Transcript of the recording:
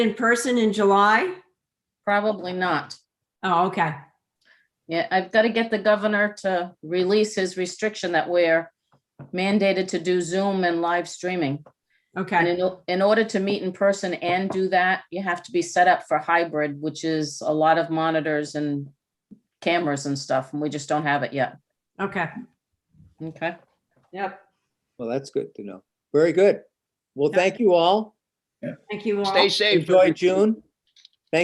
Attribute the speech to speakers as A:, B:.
A: in person in July?
B: Probably not.
A: Oh, okay.
B: Yeah, I've got to get the governor to release his restriction that we're mandated to do Zoom and live streaming. And
A: Okay.
B: in, o- in order to meet in person and do that, you have to be set up for hybrid, which is a lot of monitors and cameras and stuff, and we just don't have it yet.
A: Okay.
B: Okay.
A: Yep.
C: Well, that's good to know. Very good. Well,
A: Yeah.
C: thank you all.
A: Thank you all.
D: Stay safe.
C: Enjoy June.